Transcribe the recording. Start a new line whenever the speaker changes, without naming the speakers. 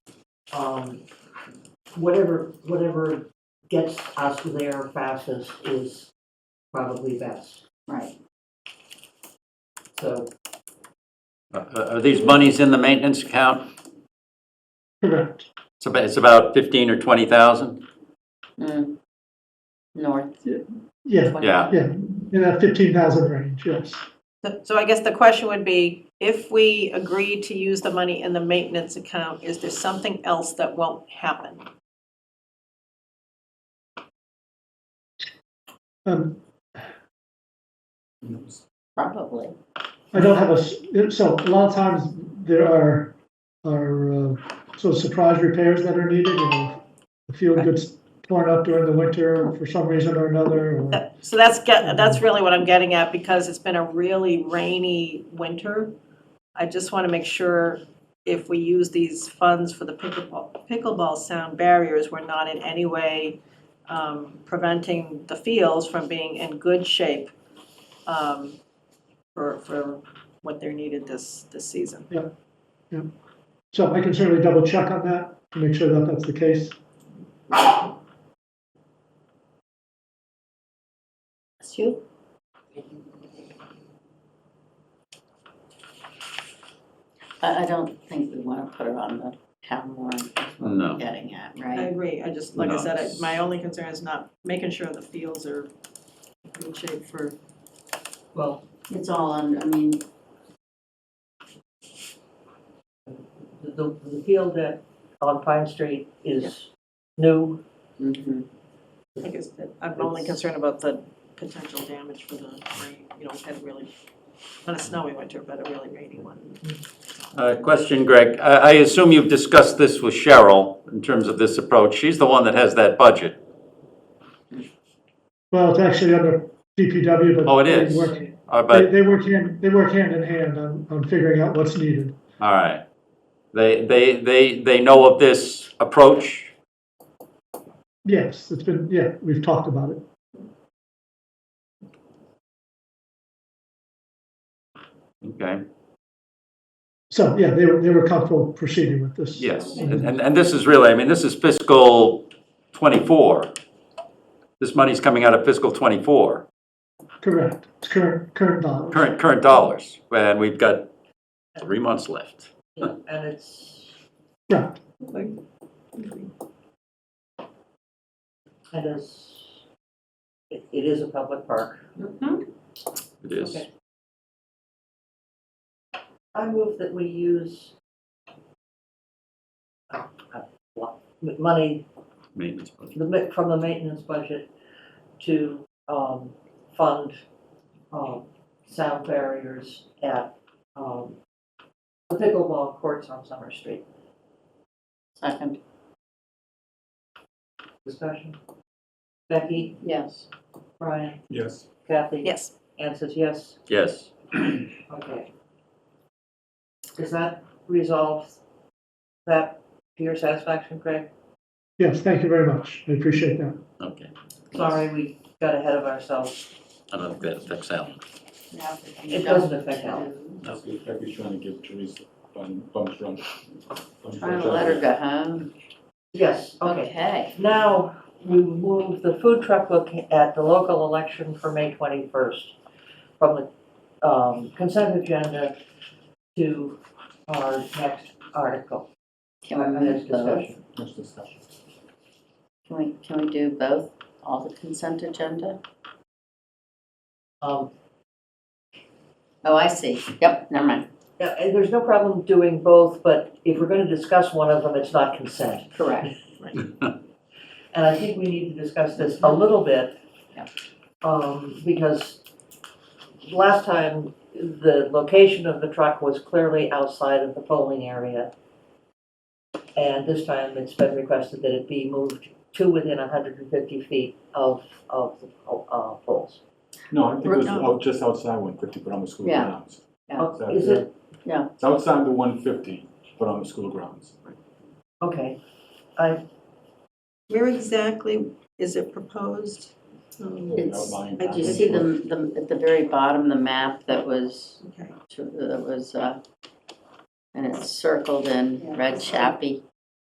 um, whatever, whatever gets us there fastest is probably best,
Right.
so.
Are- Uh, Are are these monies in the maintenance account?
Correct.
It's about, it's about 15 or 20,000?
Mm. North.
Yeah,
Yeah.
yeah, in that fifteen thousand range, yes.
So- So I guess the question would be, if we agree to use the money in the maintenance account, is there something else that won't happen?
Um,
Probably.
I don't have a, s- so a lot of times there are, are, uh, sort of surprise repairs that are needed, you know. The field gets torn up during the winter for some reason or another, or.
That- So that's, ge- that's really what I'm getting at, because it's been a really rainy winter. I just want to make sure if we use these funds for the pickleball, pickleball sound barriers, we're not in any way um, preventing the fields from being in good shape um, for, for what they're needed this, this season.
So I can certainly double check on that to make sure that that's the case.
That's you. I, I don't think we want to put it on the town warrant, is what
No.
we're getting at,
I
right?
agree, I just, like I
No.
said, I- my only concern is not making sure the fields are in good shape for,
Well,
It's all on, I mean,
the, the the field that on Pine Street is new,
mhm.
I guess, that I'm only concerned about the potential damage for the rain, you know, we've had a really, not a snowy winter, but a really rainy one.
Uh, Question, Greg. I I assume you've discussed this with Cheryl in terms of this approach. She's the one that has that budget.
Well, it's actually under DPW, but.
Oh, it
they
is.
work-
Uh,
They,
But,
they work hand, they work hand in hand on, on figuring out what's needed.
all right. They, they, they, they know of this approach?
Yes, it's been, yeah, we've talked about it.
Okay,
So, yeah, they were, they were comfortable proceeding with this.
yes. And, and- and this is really, I mean, this is fiscal 24. This money's coming out of fiscal 24.
Correct, it's current, current dollars.
current, current dollars, and we've got three months left.
and it's
Right,
kind of, it it is a public park.
Mm-hmm.
It is.
Okay. I move that we use uh, uh, what, m- money
Maintenance budget.
the ma- from the maintenance budget to um, fund um, sound barriers at um, the pickleball courts on Summer Street.
Second,
Discussion? Becky,
yes.
Brian,
Yes.
Kathy?
Yes,
Anne says yes.
Yes,
Okay. Does that resolve that to your satisfaction, Craig?
yes, thank you very much, I appreciate that.
okay.
Sorry, we got ahead of ourselves.
I don't think that affects Alan.
It doesn't affect Alan.
Becky's trying to give Teresa bum, bumps run.
Trying to let her go home.
Yes, okay.
Okay.
Now, we move the food truck look at the local election for May 21st from the um, consent agenda to our next article, our
Can we
next
move both?
discussion.
Much discussion.
Can we, can we do both, all the consent agenda?
Um,
Oh, I see. Yep, never mind.
yeah, and There's no problem doing both, but if we're going to discuss one of them, it's not consent.
Correct.
And I think we need to discuss this a little bit.
Yeah.
Um, because last time, the location of the truck was clearly outside of the polling area. And this time, it's been requested that it be moved to within hundred and fifty feet of, of the po- uh, polls.
No, I think it was
No.
out, just outside one fifty, but on the school
Yeah.
grounds.
Yeah.
Oh, Is it,
Yeah.
It's outside the one fifty, but on the school grounds.
okay, I,
where exactly is it proposed? Um,
The
It's-
outlying
Did you
package
see the,
was-
the, at the very bottom, the map that was,
Okay,
that was, uh, and it's circled in red chappy?